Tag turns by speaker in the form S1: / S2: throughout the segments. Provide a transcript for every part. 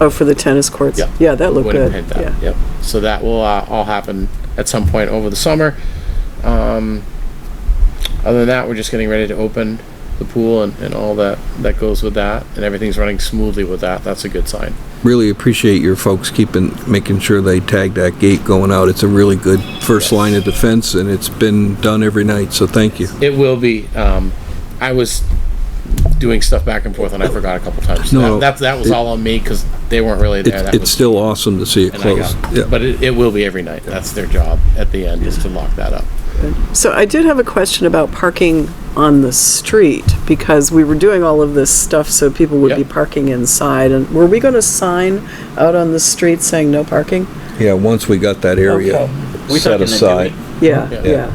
S1: Oh, for the tennis courts?
S2: Yeah.
S1: Yeah, that looked
S2: Wouldn't
S1: good.
S2: hit
S1: Yeah.
S2: that, yep. So that will uh, all happen at some point over the summer. Um, other than that, we're just getting ready to open the pool and, and all that, that goes with that. And everything's running smoothly with that. That's a good sign.
S3: Really appreciate your folks keeping, making sure they tag that gate going out. It's a really good first line of defense, and it's been done every night, so thank you.
S2: It will be, um, I was doing stuff back and forth and I forgot a couple times.
S3: No,
S2: That-
S3: no.
S2: That, that was all on me because they weren't really there.
S3: It's
S2: That
S3: it's
S2: was
S3: still awesome to see it
S2: and I
S3: closed.
S2: got-
S3: Yeah.
S2: But it, it will be every night. That's their job at the end is to lock that up.
S1: So I did have a question about parking on the street because we were doing all of this stuff so people would be
S2: Yep.
S1: parking inside. And were we going to sign out on the street saying no parking?
S3: Yeah, once we got that area
S1: Okay.
S4: We
S3: set
S4: took in the
S3: aside,
S1: Yeah,
S2: Yeah.
S1: yeah.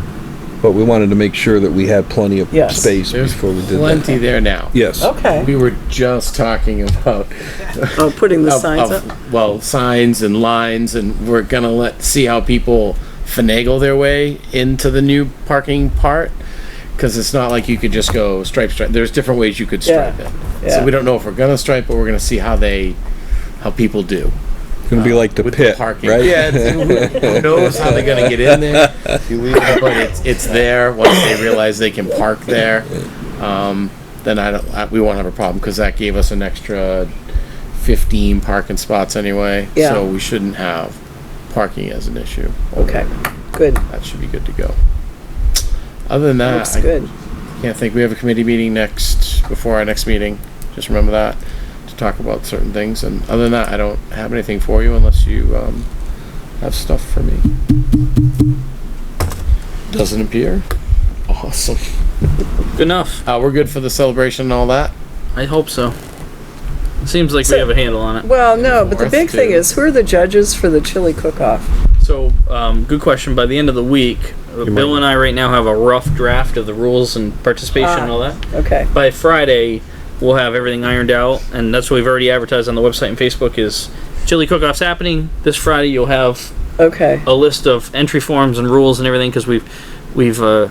S3: but we wanted to make sure that we had plenty of
S1: Yes.
S3: space
S2: There's
S3: before we did that.
S2: plenty there now.
S3: Yes.
S2: We
S1: Okay.
S2: were just talking about
S1: Oh, putting the
S2: of-
S1: signs
S2: of-
S1: up?
S2: Well, signs and lines, and we're gonna let, see how people finagle their way into the new parking part. Cause it's not like you could just go stripe, stripe. There's different ways you could stripe
S1: Yeah,
S2: it.
S1: yeah.
S2: So we don't know if we're gonna stripe, but we're gonna see how they, how people do.
S3: It's gonna be like the
S2: with
S3: pit,
S2: parking.
S3: right?
S2: Yeah, it's- who knows how they're gonna get in there? But it's, it's there, once they realize they can park there, um, then I don't, I- we won't have a problem, cause that gave us an extra fifteen parking spots anyway.
S1: Yeah.
S2: So we shouldn't have parking as an issue.
S1: Okay, good.
S2: That should be good to go. Other than that.
S1: Looks
S2: Uh, I-
S1: good.
S2: can't think, we have a committee meeting next, before our next meeting, just remember that, to talk about certain things, and other than that, I don't have anything for you unless you, um, have stuff for me. Doesn't appear. Awesome.
S4: Good enough.
S2: Uh, we're good for the celebration and all that?
S4: I hope so. Seems like
S1: So-
S4: we have a handle on it.
S1: Well, no, but the
S2: Fourth
S1: big thing
S2: to-
S1: is who are the judges for the chili cook-off?
S4: So, um, good question. By the end of the week, uh, Bill and I right now have a rough draft of the rules and participation and
S1: Ah.
S4: all that.
S1: Okay,
S4: By Friday, we'll have everything ironed out, and that's what we've already advertised on the website and Facebook is chili cook-offs happening this Friday. You'll have
S1: okay.
S4: a list of entry forms and rules and everything because we've we've uh,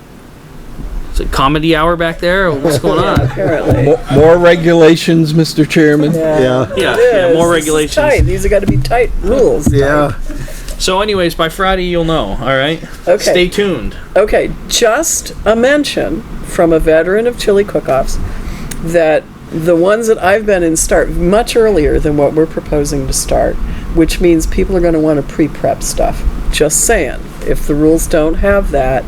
S4: is it comedy hour back there? What's going on?
S1: Apparently.
S3: Mo- More regulations, Mr. Chairman?
S1: Yeah.
S4: Yeah,
S1: It
S4: yeah,
S1: is.
S4: more
S1: This is
S4: regulations.
S1: Tight, these have got to be tight rules.
S3: Yeah.
S4: So, anyways, by Friday you'll know. All right.
S1: Okay.
S4: Stay tuned.
S1: Okay, just a mention from a veteran of chili cook-offs that the ones that I've been in start much earlier than what we're proposing to start, which means people are going to want to pre-prep stuff. Just saying, if the rules don't have that,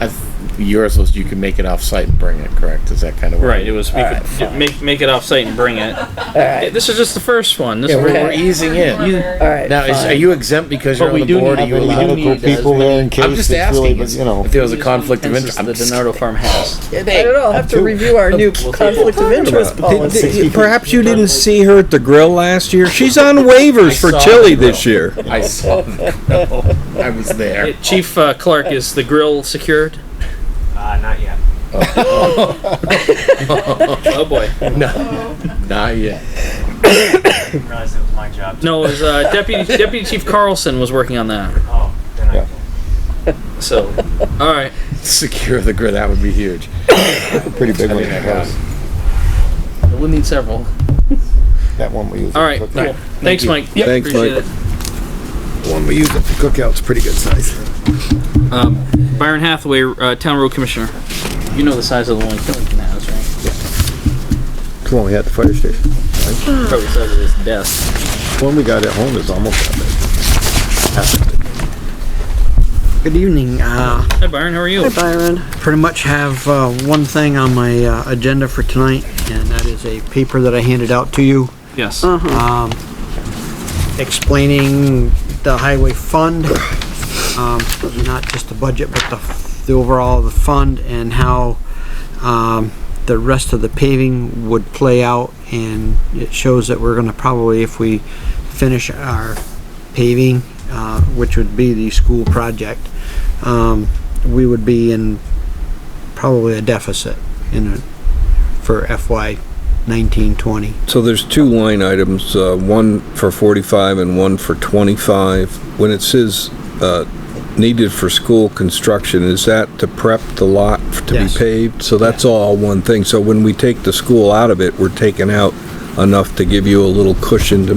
S2: I, th- yours was, you can make it off-site and bring it, correct? Is that kind of?
S4: Right. It was we
S1: Alright,
S4: could make make it off site and bring it.
S1: all right,
S4: This is just the first one. This
S2: Yeah, we're,
S4: is
S2: we're easing in.
S1: all right.
S2: Now, is,
S1: fine.
S2: are you exempt because you're
S4: But
S2: on
S4: we
S2: the
S4: do
S2: board?
S4: need-
S2: Are you
S4: we do
S2: allowed to
S4: need-
S2: go to-
S5: people there in
S2: I'm
S5: case
S2: just
S5: it's really,
S2: asking,
S5: but, you know.
S2: if there was a conflict of interest, I'm
S4: the
S2: just
S4: Donardo farm house.
S1: I don't know, I'll have to review our new conflict of interest policy.
S3: Perhaps you didn't see her at the grill last year? She's on waivers for
S2: saw
S3: chili
S2: the grill.
S3: this year.
S2: I saw the grill. I was there.
S4: Chief uh, Clark is the grill secured.
S6: Uh, not yet.
S4: Oh boy.
S2: No, not yet.
S6: Didn't realize it was my job. To,
S4: No, it was uh, Deputy Deputy Chief Carlson was working on that.
S6: oh, then I.
S4: So, all right.
S2: Secure the grid. That would be huge.
S5: Pretty big
S2: I
S5: one.
S2: think I got it.
S5: That was-
S4: We'll need several.
S5: that one we used.
S4: All right.
S5: for
S4: Cool.
S5: cookout.
S4: Thanks, Mike.
S3: Thanks,
S4: Appreciate
S3: Mike.
S4: it.
S5: The One we used at the cookout's pretty good size.
S4: Um, Byron Hathaway, uh, Town Road Commissioner. You know the size of the one Killington has, right?
S5: It's The one we had at the fire station.
S4: Probably the size of this desk.
S5: The One we got at home is almost that big.
S7: Good evening. Uh,
S4: Hi, Byron. How are you?
S1: Hi, Byron.
S7: pretty much have uh, one thing on my uh, agenda for tonight, and that is a paper that I handed out to you
S4: Yes.
S1: Um,
S7: explaining the highway fund, um, not just the budget, but the, the overall of the fund and how, um, the rest of the paving would play out and it shows that we're gonna probably, if we finish our paving, uh, which would be the school project, um, we would be in probably a deficit in, a- for FY nineteen twenty.
S3: So there's two line items, uh, one for 45 and one for 25. When it says uh, needed for school construction, is that to prep the lot f- to be
S7: Yes.
S3: paved? So that's all one thing. So when we take the school out of it, we're taking out enough to give you a little cushion to